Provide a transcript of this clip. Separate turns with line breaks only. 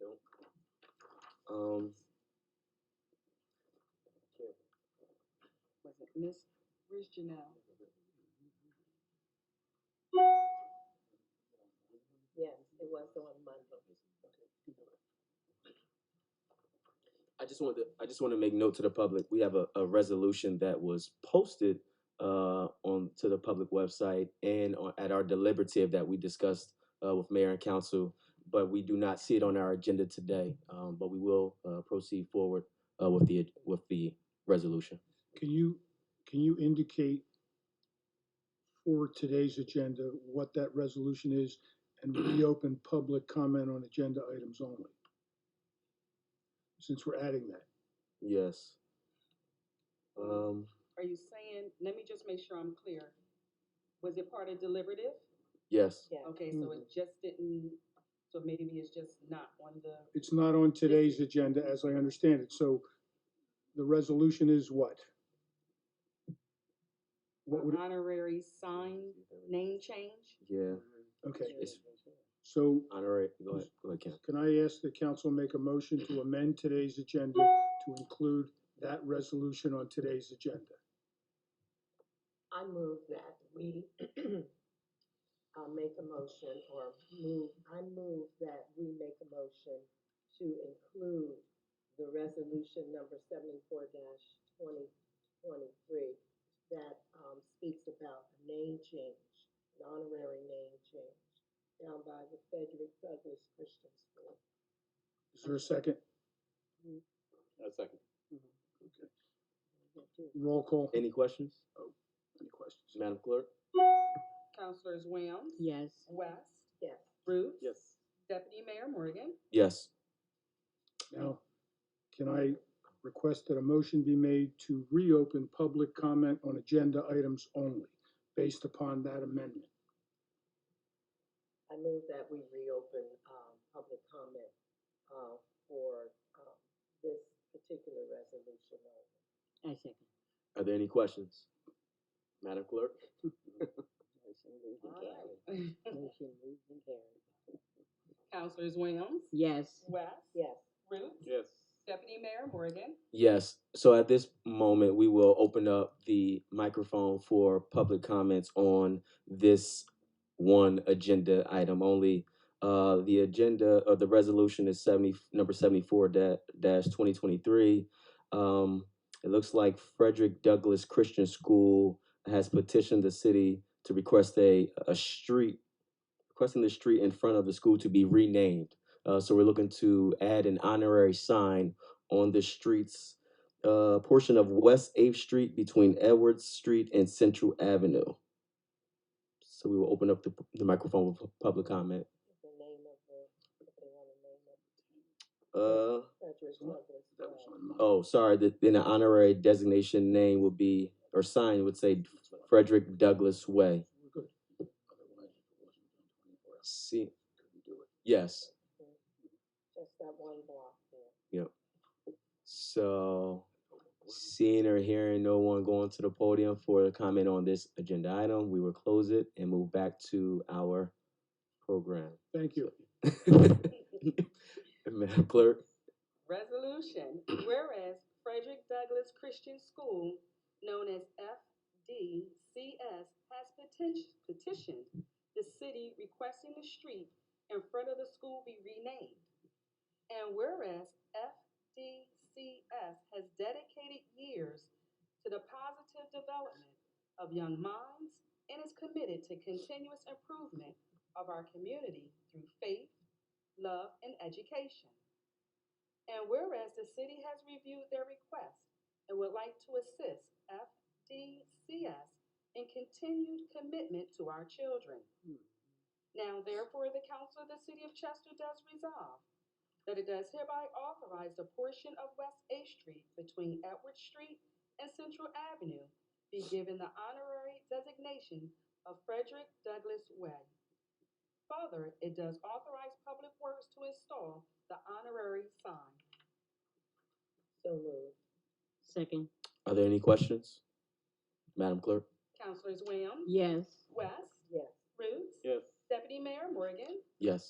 I don't. Um, can't.
Was it Miss, where's Janelle?
Yes, it was the one Monday.
I just want to. I just want to make note to the public. We have a, a resolution that was posted uh, on to the public website and on, at our deliberative that we discussed uh, with mayor and council, but we do not see it on our agenda today. Um, but we will uh, proceed forward uh, with the with the resolution.
Can you, can you indicate for today's agenda what that resolution is and reopen public comment on agenda items only? Since we're adding that.
Yes. Um,
Are you saying, let me just make sure I'm clear. Was it part of deliberative?
yes.
Yeah.
Okay, so it just didn't, so maybe it's just not on the,
It's not on today's agenda as I understand it, so the resolution is what? What would,
the honorary sign name change?
Yeah.
okay,
It's
so
honorary. Go ahead. Go ahead, Ken.
Can I ask the council make a motion to amend today's agenda to include that resolution on today's agenda?
I move that we, uh, make a motion or move, I move that we make a motion to include the resolution number seventy-four twenty twenty-three that, um, speaks about a name change, an honorary name change down by the Frederick Douglass Christian School.
Is there a second?
A second.
Roll call.
Any questions,
Oh,
Any questions?
Madam Clerk?
Counselors Williams?
Yes.
West?
Yes.
Ruth?
Yes.
Deputy Mayor Morgan?
Yes.
Now, can I request that a motion be made to reopen public comment on agenda items only based upon that amendment?
I move that we reopen, um, public comment, uh, for, um, this particular resolution.
I second.
Are there any questions, Madam Clerk?
Motion moved and carried.
Alright.
Motion moved and carried.
Counselors Williams?
Yes.
West?
Yes,
Ruth?
Yes.
Deputy Mayor Morgan?
Yes. So at this moment, we will open up the microphone for public comments on this one agenda item only. Uh, the agenda or the resolution is seventy number seventy four dash twenty twenty three. Um, it looks like Frederick Douglass Christian School has petitioned the city to request a a street requesting the street in front of the school to be renamed. Uh, so we're looking to add an honorary sign on the streets, uh, portion of West 8th Street between Edwards Street and Central Avenue. So we will open up the, the microphone for public comment.
is the name of the, if they wanna name it.
Uh,
Frederick
What?
Douglass.
That was
uh,
on mine.
oh, sorry, the, then the honorary designation name would be, or sign would say Frederick Douglass Way.
We're good. Otherwise, it wasn't done 24 hours.
See,
Couldn't do it.
yes,
Just that one block there.
so seeing or hearing no one going to the podium for a comment on this agenda item, we will close it and move back to our program.
Thank you.
Madam Clerk?
Resolution, whereas Frederick Douglass Christian School, known as FDCS, has petition- petitioned the city requesting the street in front of the school be renamed. And whereas FDCS has dedicated years to the positive development of young minds and is committed to continuous improvement of our community through faith, love, and education. And whereas the city has reviewed their request and would like to assist FDCS in continued commitment to our children. Now therefore, the council of the city of Chester does resolve that it does hereby authorize the portion of West Eighth Street between Edward Street and Central Avenue be given the honorary designation of Frederick Douglass Way. Further, it does authorize Public Works to install the honorary sign.
So moved.
Second.
Are there any questions? Madam Clerk?
Councilors Williams?
Yes.
West?
Yes,
Roots?
Yes.
Deputy Mayor Morgan?
Yes.